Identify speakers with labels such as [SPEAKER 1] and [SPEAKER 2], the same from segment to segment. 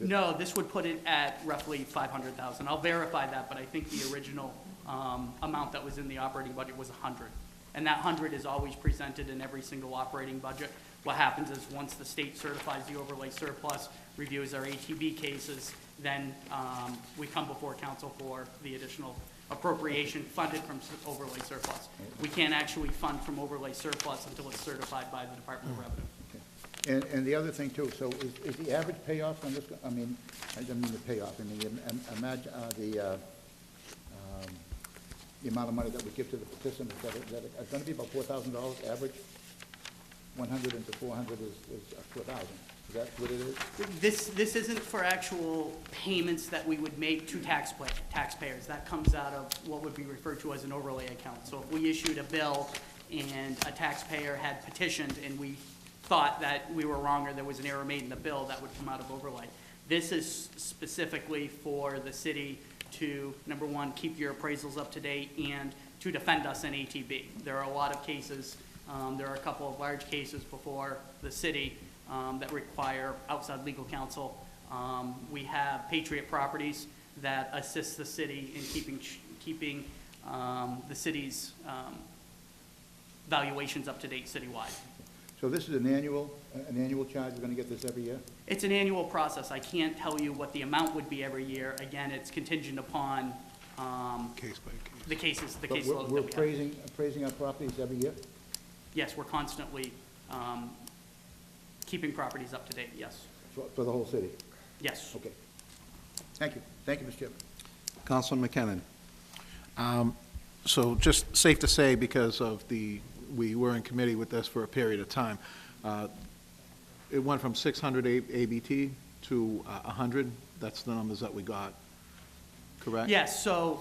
[SPEAKER 1] No, this would put it at roughly 500,000. I'll verify that, but I think the original um, amount that was in the operating budget was 100. And that 100 is always presented in every single operating budget. What happens is, once the state certifies the overlay surplus, reviews our ATV cases, then um, we come before council for the additional appropriation funded from s- overlay surplus. We can't actually fund from overlay surplus until it's certified by the Department of Revenue.
[SPEAKER 2] And, and the other thing too, so is, is the average payoff on this, I mean, I don't mean the payoff, I mean, imagine, uh, the, uh, um, the amount of money that we give to the participants, that, it- that it's gonna be about four thousand dollars average? One hundred into four hundred is, is four thousand, is that what it is?
[SPEAKER 1] This, this isn't for actual payments that we would make to taxpayers, taxpayers. That comes out of what would be referred to as an overlay account. So if we issued a bill and a taxpayer had petitioned and we thought that we were wrong or there was an error made in the bill, that would come out of overlay. This is specifically for the city to, number one, keep your appraisals up to date and to defend us in ATB. There are a lot of cases, um, there are a couple of large cases before the city um, that require outside legal counsel. Um, We have Patriot Properties that assists the city in keeping, keeping um, the city's um, valuations up to date citywide.
[SPEAKER 2] So this is an annual, an annual charge, we're gonna get this every year?
[SPEAKER 1] It's an annual process. I can't tell you what the amount would be every year. Again, it's contingent upon um,
[SPEAKER 3] Case by case.
[SPEAKER 1] the cases, the
[SPEAKER 2] But
[SPEAKER 1] caseloads
[SPEAKER 2] we're-
[SPEAKER 1] that we
[SPEAKER 2] We're
[SPEAKER 1] have.
[SPEAKER 2] appraising, appraising our properties every year?
[SPEAKER 1] Yes, we're constantly um, keeping properties up to date, yes,
[SPEAKER 2] For, for the whole city?
[SPEAKER 1] yes.
[SPEAKER 2] Okay. Thank you, thank you, Mr. Chairman.
[SPEAKER 4] Councilman McKinnon.
[SPEAKER 3] So just safe to say, because of the, we were in committee with this for a period of time, uh, it went from 600 A- ABT to uh, 100. That's the numbers that we got, correct?
[SPEAKER 1] Yes, so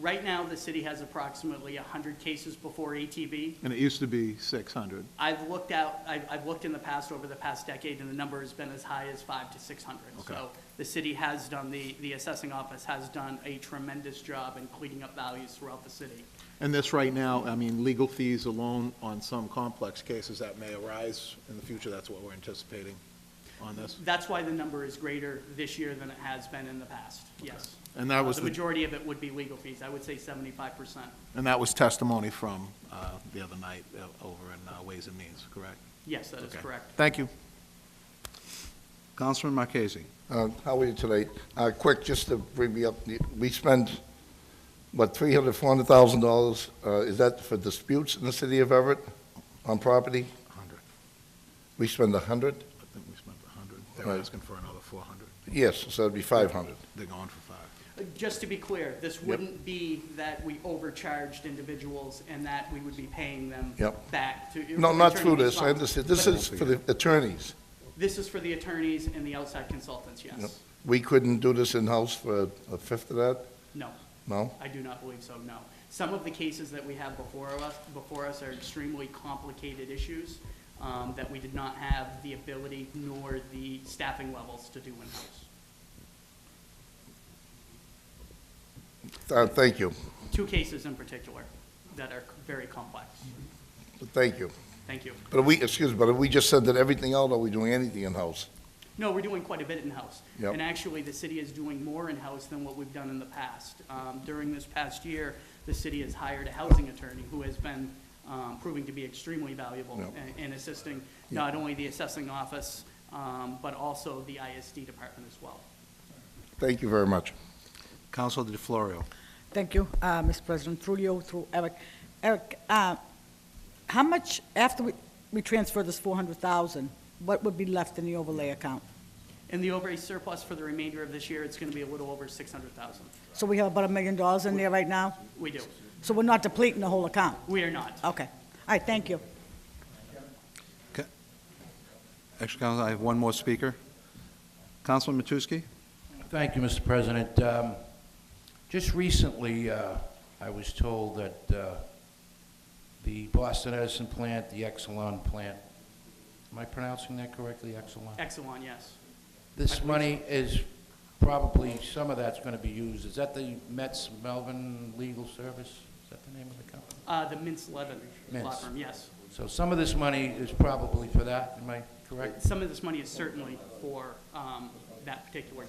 [SPEAKER 1] right now, the city has approximately 100 cases before ATV.
[SPEAKER 3] And it used to be 600.
[SPEAKER 1] I've looked out, I've, I've looked in the past, over the past decade, and the number has been as high as five to six hundred.
[SPEAKER 3] Okay.
[SPEAKER 1] So the city has done, the, the assessing office has done a tremendous job in cleaning up values throughout the city.
[SPEAKER 3] And this right now, I mean, legal fees alone on some complex cases that may arise in the future, that's what we're anticipating on this?
[SPEAKER 1] That's why the number is greater this year than it has been in the past, yes.
[SPEAKER 3] And that was
[SPEAKER 1] The
[SPEAKER 3] the-
[SPEAKER 1] majority of it would be legal fees, I would say seventy-five percent,
[SPEAKER 3] And that was testimony from uh, the other night uh, over in uh, Ways and Means, correct?
[SPEAKER 1] yes, that is
[SPEAKER 3] Okay.
[SPEAKER 1] correct.
[SPEAKER 3] Thank you.
[SPEAKER 4] Councilman Marquez.
[SPEAKER 5] Uh, How are you tonight? Uh, Quick, just to bring me up, we spend, what, $300,000, $400,000? uh, Is that for disputes in the city of Everett on property?
[SPEAKER 3] 100,
[SPEAKER 5] We spend 100?
[SPEAKER 3] I think we spent 100.
[SPEAKER 5] Right.
[SPEAKER 3] They're asking for another 400.
[SPEAKER 5] Yes, so it'd be 500.
[SPEAKER 3] They're going for five.
[SPEAKER 1] Uh, Just to be clear, this wouldn't be that we overcharged individuals and that we would be paying them
[SPEAKER 5] Yep.
[SPEAKER 1] back to.
[SPEAKER 5] No, not through
[SPEAKER 1] returning
[SPEAKER 5] this, I
[SPEAKER 1] funds.
[SPEAKER 5] understand. This
[SPEAKER 1] But
[SPEAKER 5] is for the attorneys.
[SPEAKER 1] This is for the attorneys and the outside consultants,
[SPEAKER 5] Yep.
[SPEAKER 1] yes.
[SPEAKER 5] We couldn't do this in-house for a fifth of that?
[SPEAKER 1] No,
[SPEAKER 5] No?
[SPEAKER 1] I do not believe so, no. Some of the cases that we have before us, before us are extremely complicated issues um, that we did not have the ability nor the staffing levels to do in-house.
[SPEAKER 5] Uh, Thank you,
[SPEAKER 1] Two cases in particular that are very complex.
[SPEAKER 5] thank you.
[SPEAKER 1] Thank you.
[SPEAKER 5] But we, excuse me, but we just said that everything else, are we doing anything in-house?
[SPEAKER 1] No, we're doing quite a bit in-house.
[SPEAKER 5] Yep.
[SPEAKER 1] And actually, the city is doing more in-house than what we've done in the past. Um, During this past year, the city has hired a housing attorney who has been um, proving to be extremely valuable
[SPEAKER 5] Yep.
[SPEAKER 1] in- in assisting not only the assessing office, um, but also the ISD department as well.
[SPEAKER 5] Thank you very much.
[SPEAKER 4] Council DeFlorio.
[SPEAKER 6] Thank you, uh, Mr. President, through you, through Eric. Eric, uh, how much, after we we transfer this 400,000, what would be left in the overlay account?
[SPEAKER 1] And the overage surplus for the remainder of this year, it's going to be a little over 600,000.
[SPEAKER 6] So we have about a million dollars in there right now,
[SPEAKER 1] We do.
[SPEAKER 6] so we're not depleting the whole account?
[SPEAKER 1] We are not.
[SPEAKER 6] Okay, all right, thank you.
[SPEAKER 4] Actually, Council, I have one more speaker. Councilman Matusky.
[SPEAKER 7] Thank you, Mr. President. Um, Just recently, uh, I was told that uh, the Boston Edison plant, the Exelon plant, am I pronouncing that correctly, Exelon?
[SPEAKER 1] Exelon, yes.
[SPEAKER 7] This money is probably, some of that's going to be used, is that the Metz Melvin Legal Service? Is that the name of the company?
[SPEAKER 1] Uh, The Mintz Levin law
[SPEAKER 7] Mintz.
[SPEAKER 1] firm, yes.
[SPEAKER 7] So some of this money is probably for that, am I correct?
[SPEAKER 1] Some of this money is certainly for um, that particular